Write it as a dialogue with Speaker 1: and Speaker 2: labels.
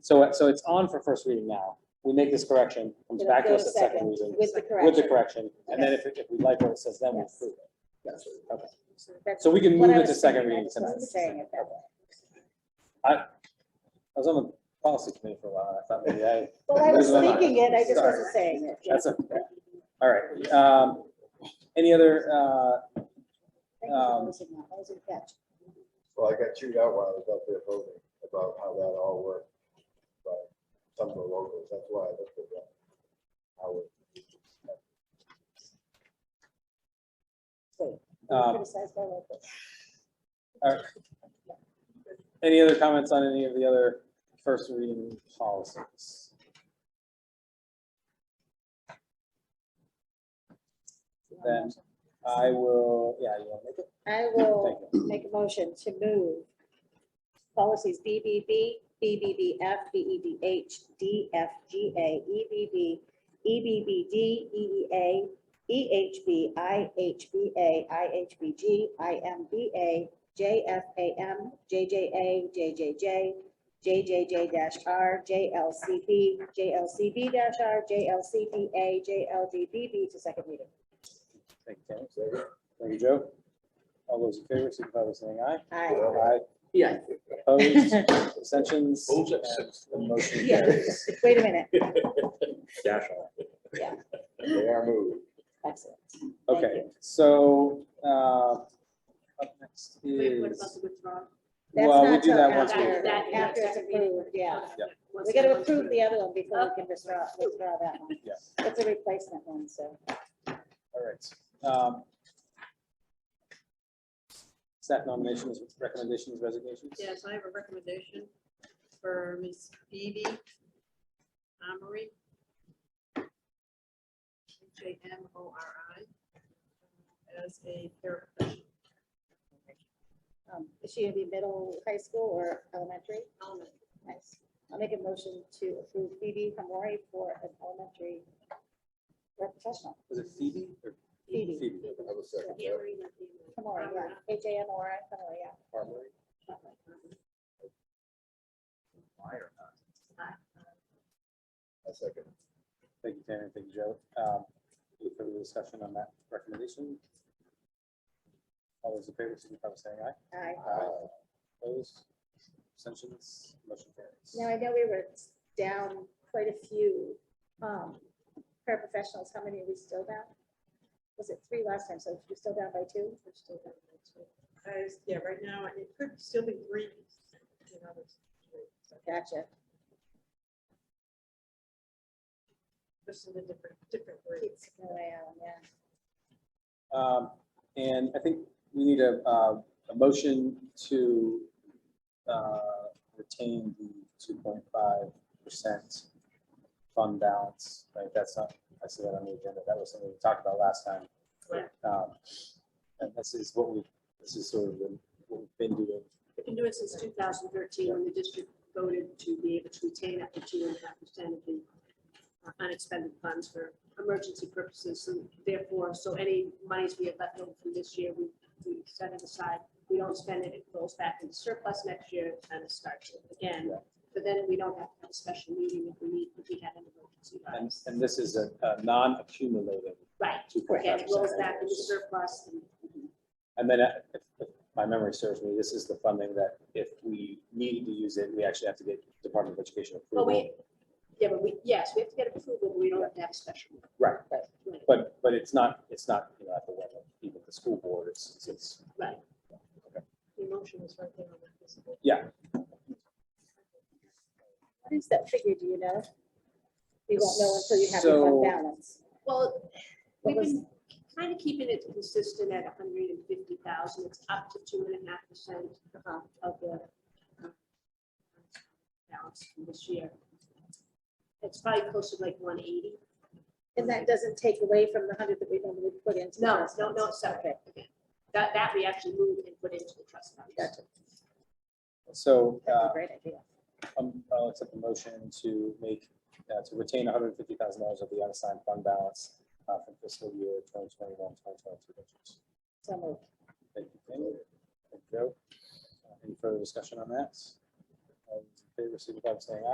Speaker 1: So, so it's on for first reading now. We make this correction, comes back to us at second reading
Speaker 2: With the
Speaker 1: with the
Speaker 2: correction.
Speaker 1: correction, and then if, if we like what it says, then we
Speaker 2: Yes.
Speaker 1: approve it.
Speaker 3: That's it.
Speaker 2: That's
Speaker 1: So we can
Speaker 2: what
Speaker 1: move
Speaker 2: I
Speaker 1: it
Speaker 2: was
Speaker 1: to second
Speaker 2: thinking, I
Speaker 1: reading
Speaker 2: just
Speaker 1: tonight.
Speaker 2: wasn't Saying it that way.
Speaker 1: I was on the policy committee for a while, and I thought maybe I,
Speaker 2: Well, I was
Speaker 1: Never mind.
Speaker 2: thinking it, I just
Speaker 1: Sorry.
Speaker 2: wasn't saying it. yeah.
Speaker 1: that's a, all right. Um, any other, uh,
Speaker 2: Thank you for
Speaker 1: um,
Speaker 2: listening. That was a catch.
Speaker 3: Well, I got chewed out while I was out there voting about how that all worked by some of the locals. That's why I looked at that. How it-
Speaker 1: um,
Speaker 2: Criticized by locals.
Speaker 1: Any other comments on any of the other first reading policies? Then I will, yeah, you want to make it?
Speaker 2: I will
Speaker 1: Thank you.
Speaker 2: make a motion to move policies BBB, BBBF, BEBH, DFGA, EBB, E, EBBD, EEA, EHB, IHBA, IHBG, IMBA, JFAM, JJA, JJJ, JJJ dash R, JLCB, JLCB dash R, JLCBA, JLDBB to second reading.
Speaker 1: Thank you, Tony. Thank you, Joe. All those in favor, signify by saying aye.
Speaker 2: Aye.
Speaker 1: Aye.
Speaker 4: Yeah.
Speaker 1: Opposed, abstentions,
Speaker 5: Opposed,
Speaker 1: and the motion
Speaker 2: Yeah.
Speaker 1: carries.
Speaker 2: Wait a minute.
Speaker 5: Dash
Speaker 3: They are moved.
Speaker 2: Excellent. Thank
Speaker 1: Okay,
Speaker 2: you.
Speaker 1: so, uh, up next
Speaker 4: Wait, what about
Speaker 1: is,
Speaker 4: the withdrawal?
Speaker 2: That's
Speaker 1: well, we
Speaker 2: not
Speaker 1: do
Speaker 2: till
Speaker 1: that once.
Speaker 4: after
Speaker 1: we-
Speaker 4: that.
Speaker 1: yeah.
Speaker 2: After it's approved, yeah.
Speaker 1: Yeah.
Speaker 2: We gotta approve the other one before we can withdraw, withdraw that one.
Speaker 1: Yeah.
Speaker 2: It's a replacement one, so.
Speaker 1: All right. um, Staff nominations, recommendations, resignations?
Speaker 4: Yes, I have a recommendation for Ms. Phoebe Amory. J M O R I. As a paraprofessional,
Speaker 2: um, Is she gonna be middle, high school or elementary?
Speaker 4: element,
Speaker 2: Nice. I'll make a motion to approve Phoebe Hamori for an elementary or professional.
Speaker 1: Was it Phoebe or
Speaker 2: Phoebe.
Speaker 1: Phoebe?
Speaker 3: I was second. that.
Speaker 4: Amory, not Amory.
Speaker 2: Hamori, yeah. H A M O R I, Hamori, yeah.
Speaker 3: Harmony?
Speaker 4: uh,
Speaker 3: I second.
Speaker 1: Thank you, Tammy. Thank you, Joe. Um, Any further discussion on that recommendation? All those in favor, signify by saying aye.
Speaker 2: Aye.
Speaker 3: Aye.
Speaker 1: Uh, Opposed? Abstentions? Motion carries.
Speaker 2: Now, I know we were down quite a few um, paraprofessionals. How many are we still down? Was it three last time? So we're still down by two? We're still down by two.
Speaker 4: As, yeah, right now, it could still be three. you know, there's three, so
Speaker 2: Gotcha.
Speaker 4: Just in a different, different grade.
Speaker 2: Keeps going on, yeah.
Speaker 1: Um, And I think we need a, uh, a motion to uh, retain the two point five percent fund balance, right? That's not, I see that on the agenda. That was something we talked about last time.
Speaker 4: Right.
Speaker 1: Um, And this is what we, this is sort of the- what we've been doing.
Speaker 6: We've been doing since two thousand thirteen, when the district voted to be able to retain up to two and a half percent of the uh, unexpended funds for emergency purposes, and therefore, so any monies we have left over from this year, we, we set it aside. We don't spend it, it goes back into surplus next year, kind of starts it again,
Speaker 1: Yeah.
Speaker 6: but then we don't have to have a special meeting if we need, if we have an emergency.
Speaker 1: And, and this is a, a non-accumulating
Speaker 6: Right,
Speaker 1: two point
Speaker 6: okay,
Speaker 1: five
Speaker 6: it rolls
Speaker 1: percent.
Speaker 6: back into surplus, and
Speaker 1: And then, uh, if if my memory serves me, this is the funding that if we needed to use it, we actually have to get Department of Education
Speaker 6: Well,
Speaker 1: approval.
Speaker 6: we, yeah, but we, yes, we have to get approval, but we don't have to have a special. meeting.
Speaker 1: Right,
Speaker 6: Right.
Speaker 1: but, but it's not, it's not, you know, at the level of even the school board, it's, it's- it's,
Speaker 4: The emotion is right there on that. isn't it?
Speaker 1: yeah.
Speaker 2: What is that figure, do you know? You won't know until you have your
Speaker 1: So-
Speaker 2: fund balance.
Speaker 6: Well,
Speaker 2: What
Speaker 6: we've
Speaker 2: was-
Speaker 6: been kind of keeping it consistent at hundred and fifty thousand, it's up to two and a half percent of the uh, balance from this year. It's probably closer to like one eighty.
Speaker 2: And that doesn't take away from the hundred that we normally put into.
Speaker 6: No,
Speaker 2: trust
Speaker 6: no, no,
Speaker 2: funds.
Speaker 6: it's separate. That, that we actually moved and put into the trust fund.
Speaker 2: Gotcha.
Speaker 1: So,
Speaker 2: That's
Speaker 1: uh,
Speaker 2: a great idea.
Speaker 1: um, I'll accept the motion to make, uh, to retain hundred and fifty thousand dollars of the unassigned fund balance uh, from fiscal year 2021-2022.
Speaker 2: So moved.
Speaker 1: Thank you, Pam. Thank you, Joe. Uh, Any further discussion on that? All those in favor, signify by saying aye.